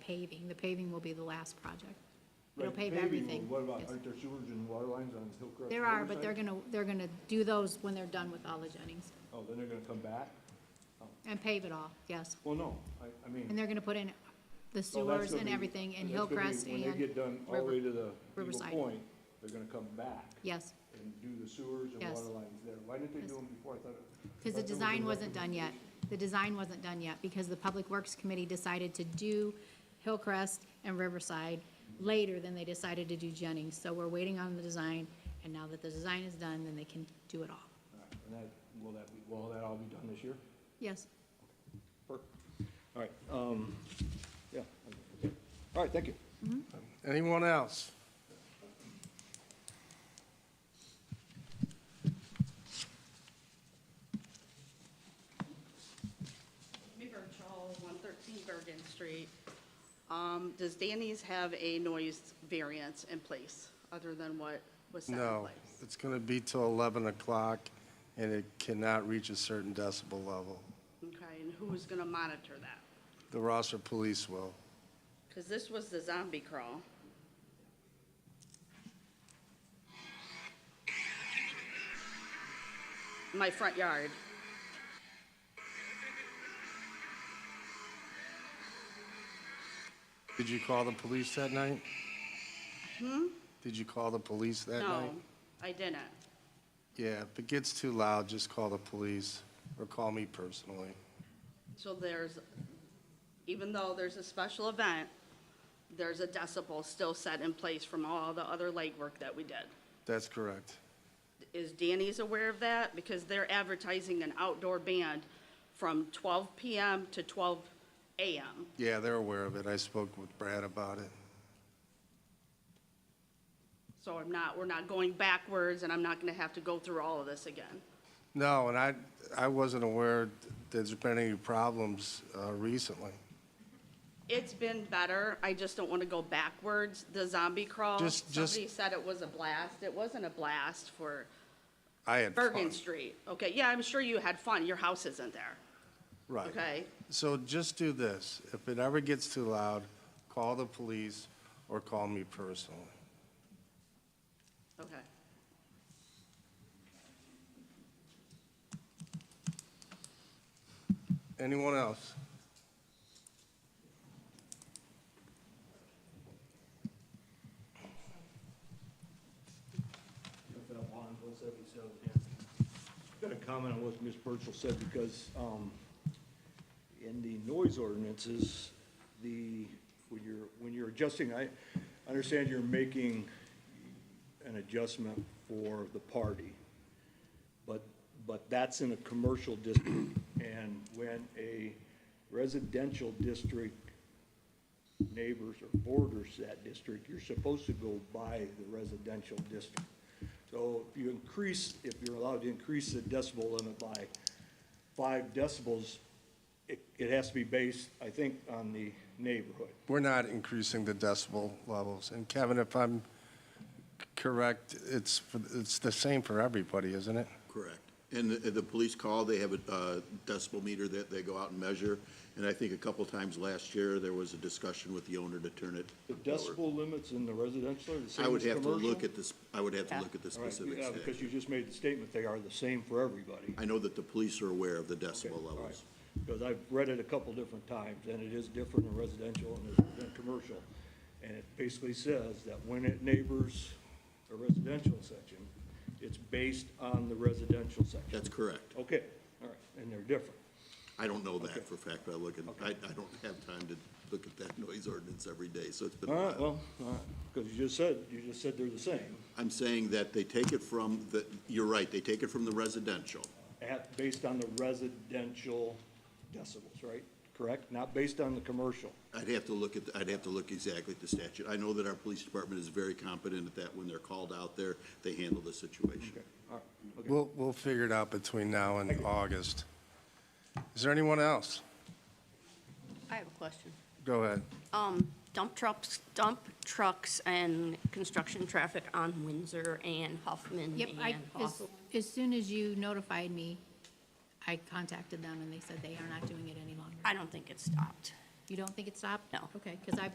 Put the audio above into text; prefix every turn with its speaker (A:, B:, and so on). A: paving. The paving will be the last project. It'll
B: Like
A: pave
B: paving,
A: everything.
B: What about,
A: Yes.
B: aren't there sewers and water lines on Hillcrest?
A: There are, but they're
B: Riverside?
A: gonna, they're gonna do those when they're done with all the Jennings
B: Oh, then they're gonna come back?
A: and pave it all, yes.
B: Well, no, I, I mean.
A: And they're gonna put in the
B: well, that's
A: sewers
B: gonna
A: and
B: be-
A: everything in
B: that's gonna be-
A: Hillcrest
B: When they get
A: and,
B: done all the way to the Eagle
A: Riverside.
B: Point, they're gonna come back
A: yes,
B: and do the sewers and
A: Yes.
B: water lines there. Why didn't they
A: Yes.
B: do them before? I thought. it-
A: because the
B: I thought there was a
A: design wasn't done yet. The design wasn't done yet because the Public Works Committee decided to do Hillcrest and Riverside later than they decided to do Jennings. So we're waiting on the design, and now that the design is done, then they can do it all.
B: All right, And that, will that, be- will that all be done this year?
A: Yes,
B: Perfect. All right, um, yeah.
A: Mm-hmm.
B: okay. All right, thank you.
C: Anyone else?
D: Amy Birchall, 113 Bergen Street. Um, Does Danny's have a noise variance in place other than what was set in
C: No.
D: place?
C: It's going to be till 11 o'clock, and it cannot reach a certain decibel level.
D: Okay, and who's going to monitor that?
C: The Rosser Police will.
D: Because this was the zombie crawl. My front yard.
C: Did you call the police that night? Did you call the police that
D: No,
C: night?
D: I didn't.
C: Yeah, if it gets too loud, just call the police, or call me personally.
D: So there's, even though there's a special event, there's a decibel still set in place from all the other legwork that we did.
C: That's correct.
D: Is Danny's aware of that? Because they're advertising an outdoor band from 12 PM to 12 AM.
C: Yeah, they're aware of it. I spoke with Brad about it.
D: So I'm not, we're not going backwards, and I'm not gonna have to go through all of this again.
C: No, and I, I wasn't aware there's been any problems uh, recently.
D: It's been better, I just don't wanna go backwards. The zombie crawl,
C: Just- just-
D: somebody said it was a blast. It wasn't a blast for
C: I had fun.
D: Bergen Street. Okay, yeah, I'm sure you had fun, your house isn't there.
C: Right.
D: Okay.
C: So just do this. If it ever gets too loud, call the police or call me personally.
D: Okay.
C: Anyone else?
B: Got that on 177, yeah. Got a comment on what Ms. Burchell said, because um, in the noise ordinances, the, when you're, when you're adjusting, I understand you're making an adjustment for the party, but, but that's in a commercial district, and when a residential district neighbors or borders that district, you're supposed to go by the residential district. So if you increase, if you're allowed to increase the decibel limit by five decibels, it, it has to be based, I think, on the neighborhood.
C: We're not increasing the decibel levels. And Kevin, if I'm correct, it's, for- it's the same for everybody, isn't it?
E: Correct. And the, the police call, they have a uh, decibel meter that they go out and measure. And I think a couple times last year, there was a discussion with the owner to turn it.
B: The
E: lower.
B: decibel limits in the residential are the same
E: I
B: as commercial?
E: would have to look at this, I would have to
D: Yeah.
E: look at the
B: All right,
E: specifics.
B: yeah, Because you just made the statement, they are the same for everybody.
E: I know that the police are aware of the
B: Okay,
E: decibel
B: all right.
E: levels.
B: Because I've read it a couple different times, and it is different in residential and it's than commercial. And it basically says that when it neighbors a residential section, it's based on the residential section.
E: That's correct.
B: Okay, all right, and they're different.
E: I don't know
B: Okay.
E: that for a fact, but I look at, I, I don't have time to look at that noise ordinance every day, so it's been a
B: All
E: while.
B: right, well, all right, because you just said, you just said they're the same,
E: I'm saying that they take it from the, you're right, they take it from the residential.
B: at, based on the residential decibels, right? Correct? Not based on the commercial.
E: I'd have to look at, I'd have to look exactly at the statute. I know that our police department is very competent at that. When they're called out there, they handle the situation.
B: Okay, all right, okay.
C: We'll, we'll figure it out between now and August. Is there anyone else?
F: I have a question.
C: Go ahead.
F: Um, dump trucks, dump trucks and construction traffic on Windsor and Huffman
A: yep, I,
F: and
A: as,
F: Hawthorne.
A: as soon as you notified me, I contacted them and they said they are not doing it any longer.
F: I don't think it stopped.
A: You don't think it stopped?
F: No.
A: Okay, because I